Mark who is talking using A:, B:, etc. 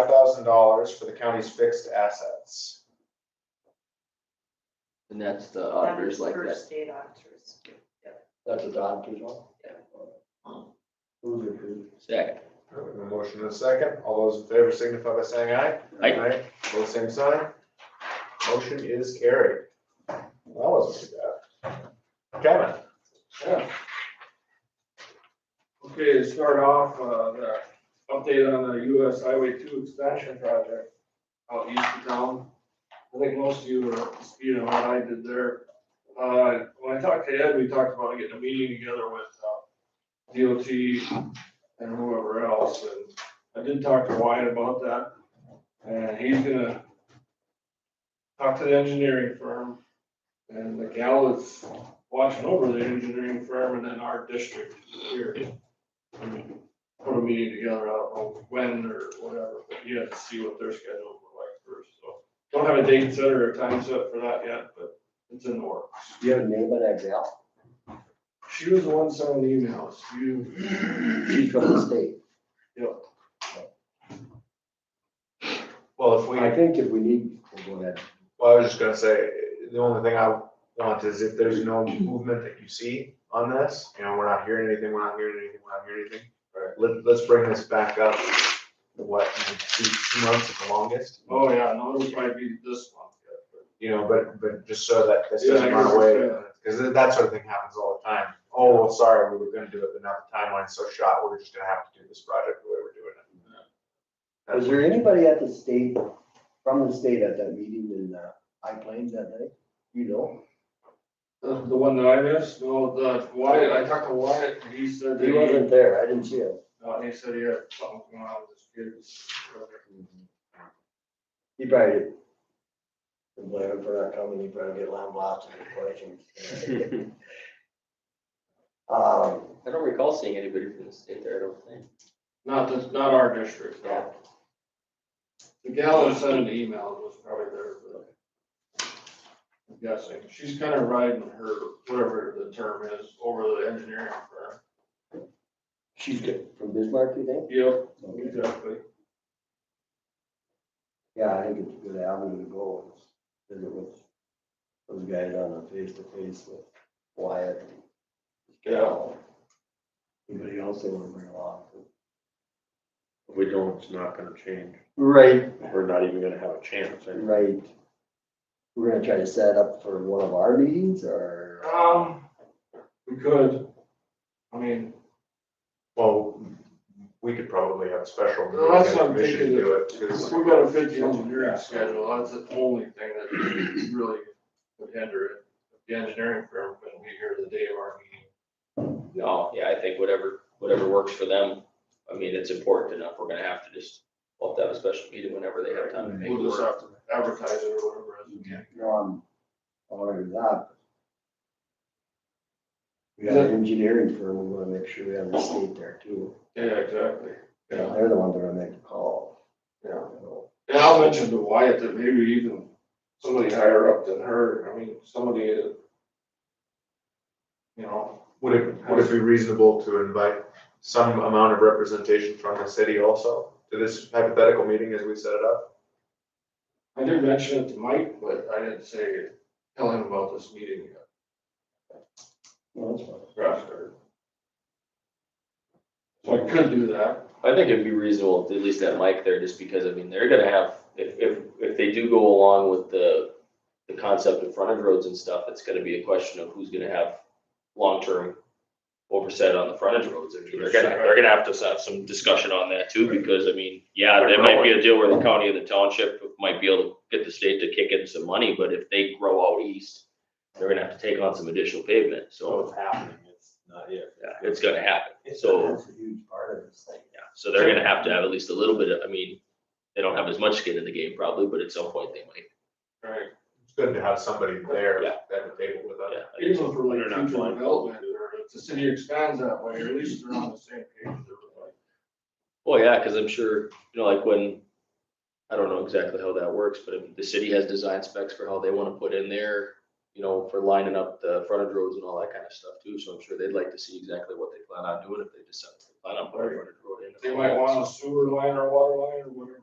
A: thousand dollars for the county's fixed assets.
B: And that's the
C: That
B: auditors
C: was
B: like
C: for
B: that.
C: State auditors.
D: That's a doctor's one?
C: Yeah.
D: Move to approve.
B: Second.
A: All right, we have A motion and a second. All those in favor signify by saying aye.
B: Aye.
A: Both same sign. Motion is carried. That wasn't too bad. Kevin?
E: Okay, to start off, uh, the update on the US Highway two expansion project out east of town. I think most of you were speaking on what I did there. Uh, when I talked to Ed, we talked about getting a meeting together with, uh, DOT and whoever else, and I did talk to Wyatt about that. And he's gonna talk to the engineering firm and the gal that's watching over the engineering firm and then our district here put a meeting together, I don't know when or whatever, but you have to see what their schedule look like first, so. Don't have a date set or a time set for that yet, but it's in the works.
D: Do you have a name of that gal?
E: She was the one sending the emails, you,
D: She's from the state.
A: Well, if we,
D: I think if we need, we'll go ahead.
A: well, I was just gonna say, the only thing I want is if there's no movement that you see on this, you know, we're not hearing anything, we're not hearing anything, we're not hearing anything.
E: Right.
A: Let, let's bring this back up, what, two, two months at the longest?
E: oh yeah, no, it'll probably be this month yet, but
A: you know, but, but just so that this
E: Yeah, I
A: doesn't
E: hear
A: run
E: what
A: away. uh,
E: you're
A: Cause that that sort of thing happens all the time. Oh, well, sorry, we were gonna do it, but now the timeline's so shot, we're just gonna have to do this project the way we're doing it.
D: Was there anybody at the state, from the state at that meeting in, uh, High Plains that night? You know?
E: Uh, The the one that I missed, no, the Wyatt, I talked to Wyatt, and he said that
D: He
E: he,
D: wasn't there. I didn't see him.
E: uh, he said he had something going on with his kids.
D: He probably. did. And Blair, for not coming, he probably get lambasted with questions. Um,
B: I don't recall seeing anybody from the state there, I don't think.
E: Not this, not our district, no. The gal that sent an email was probably there, but. I'm guessing, she's kind of riding her, whatever the term is, over the engineering firm.
D: she's good. From Bismarck, you think?
E: Yep,
D: Okay.
E: exactly.
D: Yeah, I think it's a good avenue to go, is visit with those guys on a face-to-face with Wyatt.
E: Yeah.
D: Anybody else they wanna bring along?
F: If we don't, it's not gonna change.
D: Right,
F: We're not even gonna have a chance. And
D: right. We're gonna try to set up for one of our meetings or?
E: Um, we could, I mean,
A: Well, we could probably have a special.
E: Well, that's
A: meeting
E: what I'm
A: and commission
E: thinking.
A: Do it,
E: if
A: 'cause-
E: we gotta fit the engineering schedule, that's the only thing that really would hinder it. The engineering firm couldn't be here the day of our meeting.
B: No, yeah, I think whatever, whatever works for them, I mean, it's important enough, we're gonna have to just, we'll have to have a special meeting whenever they have time to make it
E: We'll just
B: work.
E: have to advertise it or whatever. as we can.
D: No, I'm, I'm already that. We got an engineering firm, we wanna make sure we have the state there too.
E: Yeah, exactly. Yeah,
D: They're the ones that are gonna make the call.
E: yeah. And I'll mention to Wyatt that maybe even somebody higher up than her, I mean, somebody that, you know,
A: Would it, would it be reasonable to invite some amount of representation from the city also to this hypothetical meeting as we set it up?
E: I did mention it to Mike, but I didn't say, tell him about this meeting yet.
D: No, that's fine.
E: Roster. So I could do that.
B: I think it'd be reasonable to at least have Mike there, just because, I mean, they're gonna have, if, if, if they do go along with the, the concept of frontage roads and stuff, it's gonna be a question of who's gonna have long-term oversight on the frontage roads. I mean, They're gonna, they're gonna have to have some discussion on that too, because, I mean, yeah, there might be a deal where the county and the township might be able to get the state to kick in some money, but if they grow out east, they're gonna have to take on some additional pavement, so,
F: Oh, it's happening, it's not yet.
B: yeah, it's gonna happen, so.
D: That's a huge part of this thing.
B: Yeah, so they're gonna have to have at least a little bit of, I mean, they don't have as much skin in the game probably, but at some point they might.
E: Right.
A: It's good to have somebody there
B: Yeah.
A: at the table with us.
B: Yeah, I guess.
E: Even for
B: They're
E: like
B: not
E: future
B: blind.
E: development, or if the city expands that way, or at least they're on the same page as everybody.
B: Well, yeah, cause I'm sure, you know, like when, I don't know exactly how that works, but if the city has design specs for how they wanna put in there, you know, for lining up the frontage roads and all that kind of stuff too, so I'm sure they'd like to see exactly what they plan on doing if they decide to plan on putting a frontage road in.
E: They might want a sewer line or water line or whatever.